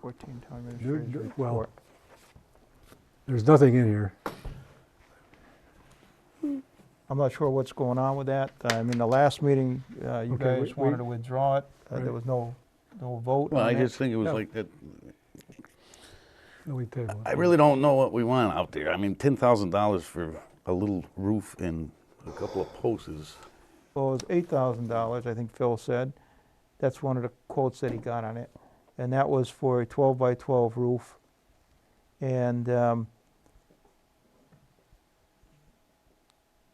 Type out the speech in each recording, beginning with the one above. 14, town There- administrator's there- Well, report. there's nothing in here. I'm not sure what's going on with that. I mean, the last meeting, uh, you Okay, we- guys wanted we- to withdraw it. Uh, There Right. was no, no vote Well, on I that. just think it was Yeah. like that. No, we table it. I really don't know what we want out there. I mean, ten thousand dollars for a little roof and a couple of posts is. Well, it was eight thousand dollars, I think Phil said. That's one of the quotes that he got on it. And that was for a twelve by twelve roof. And, um,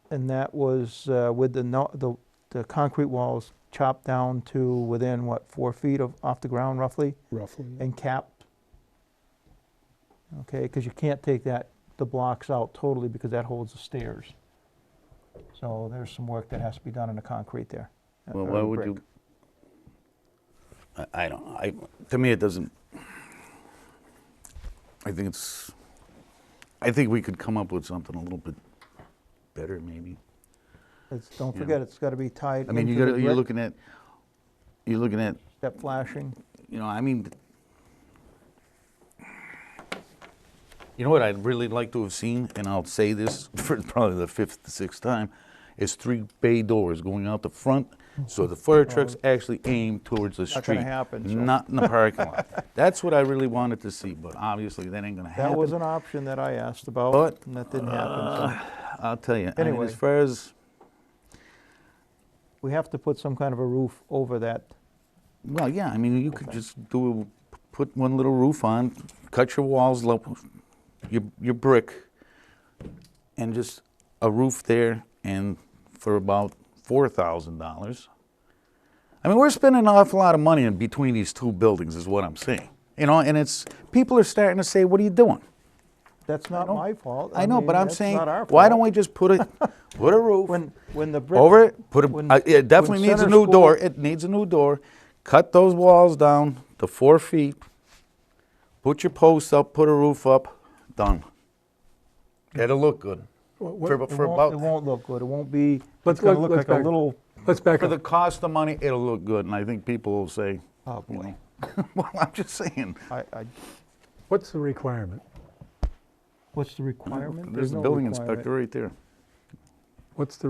and that was, uh, with the, no- the, the concrete walls chopped down to within, what, four feet of, off the ground roughly? Roughly. and capped. Okay, because you can't take that, the blocks out totally because that holds the stairs. So there's some work that has to be done in the concrete there. uh, or Well, why the would brick. you? I, I don't. I to me it doesn't. I think it's. I think we could come up with something a little bit better, maybe. It's, don't Yeah. forget, it's gotta be tied I mean, you into the got. You're brick, looking at. You're looking at. that flashing. You know. I mean. You know what I'd really like to have seen, and I'll say this for probably the fifth, sixth time, is three bay doors going out the front, so the fire trucks actually aim towards the Oh. Not street. gonna happen, so- Not in the parking lot. That's what I really wanted to see, but obviously that ain't gonna happen. That was an option that I asked about, But, and that didn't happen, so Uh, I'll tell you. I mean, Anyway. as far as we have to put some kind of a roof over that. well, yeah. I mean, you could just do put one little roof on, cut your walls, lo- your your brick, and just a roof there, and for about four thousand dollars. I mean, we're spending an awful lot of money in between these two buildings, is what I'm saying. You know, and it's people are starting to say, "What are you doing?" That's not don't- my fault. I know, mean, but I'm that's saying, not our why don't fault. we just put it, put a roof When, when the brick. over it? Put a, when- uh, it definitely when needs a Center new School- door. It needs a new door. Cut those walls down to four feet. Put your posts up. Put a roof up. Done. That'll look good. What- what- For, It for won't, it about won't look good. It won't be, it's Let's- gonna let's- look let's like a back- little, Let's back for the up. cost of money, it'll look good, and I think people will say, oh you boy. know. well, I'm just saying. I, I, What's the requirement? what's the requirement? There's the no building requirement. inspector right there. What's the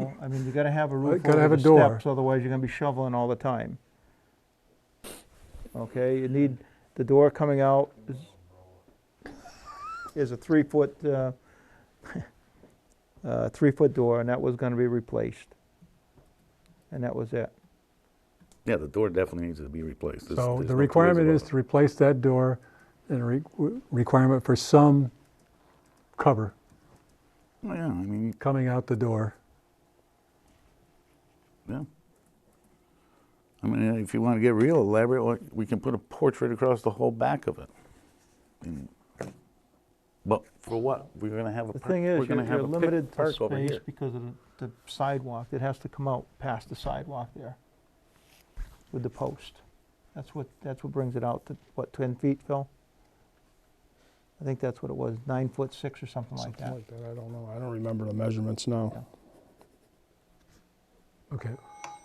No, I mean, you gotta have a roof gotta over have the a door. steps, otherwise you're gonna be shoveling all the time. Okay, you need, the door coming out is, is a three-foot, uh, uh, three-foot door, and that was gonna be replaced. And that was it. Yeah, the door definitely needs to be replaced. There's- So there's the no two ways requirement about is it. to replace that door and a re- w- requirement for some cover Well, Oh, yeah, I mean, coming out the door. Yeah. I mean, if you want to get real elaborate, why- we can put a portrait across the whole back of it. And- But for what? We're gonna have a. The par- thing we're is, gonna you're have you're a pic- limited to park over space here. because of the the sidewalk, it has to come out past the sidewalk there with the post. That's what, that's what brings it out to, what, 10 feet, Phil? I think that's what it was, nine foot six or something like Something that. like that, I don't know, I don't remember the measurements now. Okay.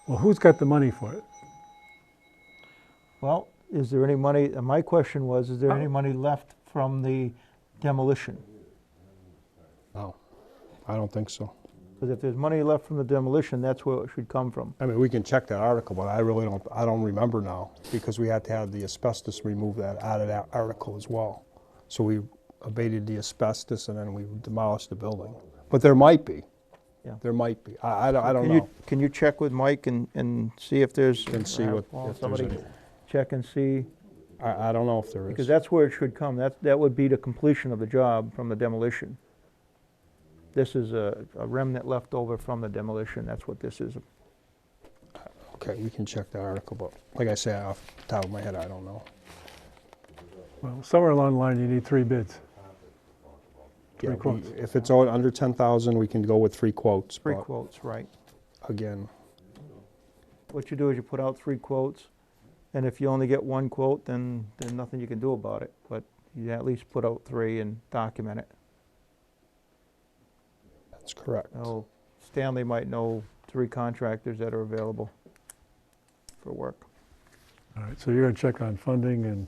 Well, who's got the money for it? Well, is there any money, and my question was, is there Oh. any money left from the demolition? No, I don't think so. Because if there's money left from the demolition, that's where it should come from. I mean, we can check that article, but I really don't, I don't remember now, because we had to have the asbestos removed that, out of that article as well. So we abated the asbestos and then we demolished the building. But there might be, Yeah. there might be, I, I don't- I don't Can you- know. Can you check with Mike and, and see if there's? Can see uh, what- well, if there's Somebody any. check and see. I, I don't know if there Because is. that's where it should come, that, that would be the completion of the job from the demolition. This is a a remnant left over from the demolition, that's what this is. Okay, we can check the article, but like I said, off the top of my head, I don't know. Well, somewhere along the line, you need three bids. Three Yeah, we- quotes. If it's all under ten thousand, we can go with three quotes, Three but quotes, right. again, What you do is you put out three quotes, and if you only get one quote, then there's nothing you can do about it. But you at least put out three and document it. that's correct. Now, Stanley might know three contractors that are available for work. All right, so you're going to check on funding and